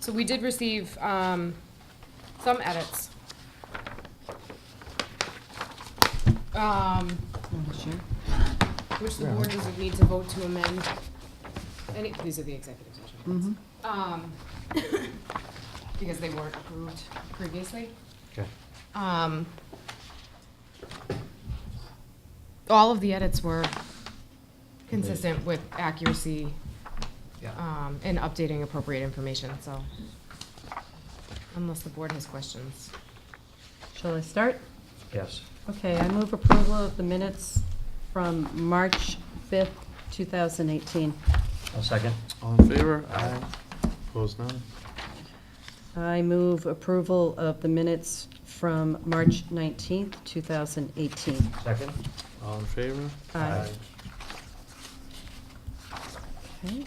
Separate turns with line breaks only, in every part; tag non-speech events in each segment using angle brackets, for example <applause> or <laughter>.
So we did receive, um, some edits. Um, which the board doesn't need to vote to amend. Any, these are the executive session. minutes. Um, <coughs> because they weren't approved previously.
Okay.
Um, all of the edits were consistent with accuracy, um, and updating appropriate information, so. Unless the board has questions.
Shall I start?
Yes.
Okay, I move approval of the minutes from March 5th, 2018.
I'll second.
All in favor? Aye. Opposed, none?
I move approval of the minutes from March 19th, 2018.
Second?
All in favor?
Aye. Okay.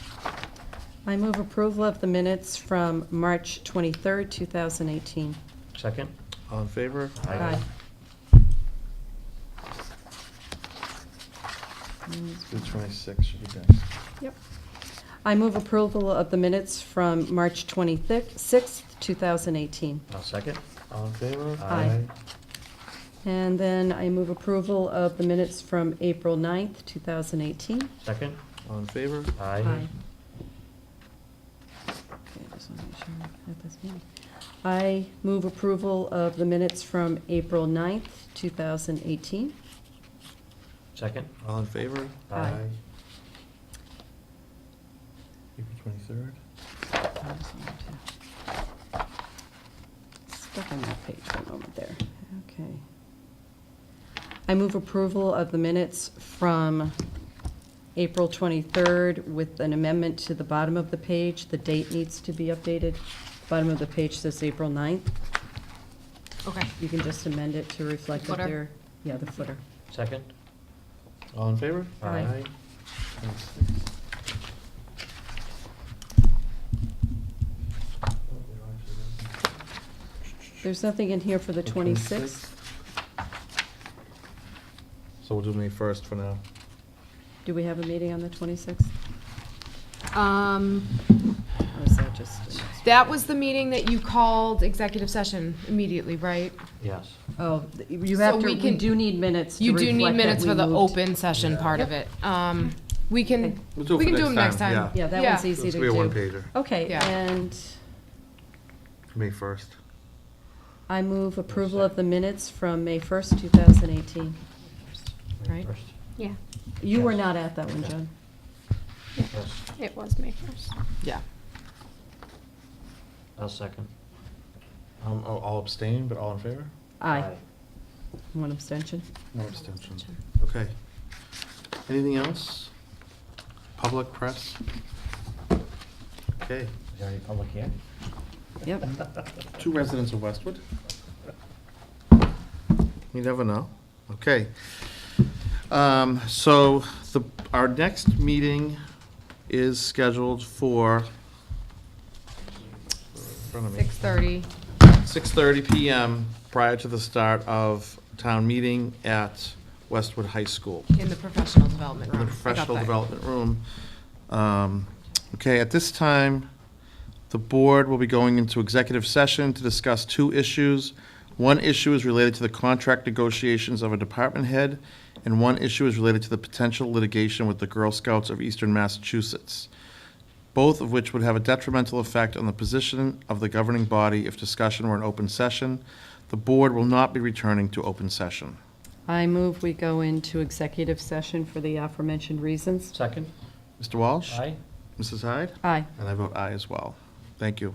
I move approval of the minutes from March 23rd, 2018.
Second?
All in favor?
Aye.
Two twenty-six should be next.
Yep. I move approval of the minutes from March 26th, 2018.
I'll second.
All in favor?
Aye. And then I move approval of the minutes from April 9th, 2018.
Second?
All in favor?
Aye.
Okay, just wanna make sure I have this in. I move approval of the minutes from April 9th, 2018.
Second?
All in favor?
Aye.
April twenty-third?
Stuck on that page for a moment there. Okay. I move approval of the minutes from April 23rd with an amendment to the bottom of the page. The date needs to be updated. Bottom of the page says April 9th.
Okay.
You can just amend it to reflect that
Footer.
there. Yeah, the footer.
Second?
All in favor?
Aye.
Twenty-six.
There's nothing in here for the
The
26th.
26th? So we'll do May first for now.
Do we have a meeting on the 26th?
Um,
Or is that just?
that was the meeting that you called executive session immediately, right?
Yes.
Oh, th- you
So
have to,
we
we
can-
do need minutes to
You do need
reflect that
minutes
we
for the
moved.
open session
Yeah.
part of it. Um, we can,
Okay.
We'll do it
we
for
can do
next
them next
time,
time.
yeah.
Yeah, that
Yeah.
one's easy
It's
to
be a
do.
one-pager,
Okay,
Yeah.
and
May first.
I move approval of the minutes from May 1st, 2018.
Right.
First?
Yeah,
You were
Yes.
not at that one,
Okay.
John.
Yes.
it was May first.
Yeah.
I'll second.
Um, I'll I'll abstain, but all in favor?
Aye. One abstention.
No abstention. Okay. Anything else? Public press? Okay,
Is there any public here?
Yep.
two residents of Westwood. You never know. Okay. Um, so the, our next meeting is scheduled for
Six thirty.
six thirty PM prior to the start of town meeting at Westwood High School.
In the professional development
in
room.
the
Ah, I got
professional
that.
development room. Um, Okay, at this time, the board will be going into executive session to discuss two issues. One issue is related to the contract negotiations of a department head, and one issue is related to the potential litigation with the Girl Scouts of Eastern Massachusetts, both of which would have a detrimental effect on the position of the governing body if discussion were an open session. The board will not be returning to open session.
I move we go into executive session for the aforementioned reasons.
Second?
Mr. Walsh?
Aye.
Mrs. Hyde?
Aye.
And I vote aye as well. Thank you.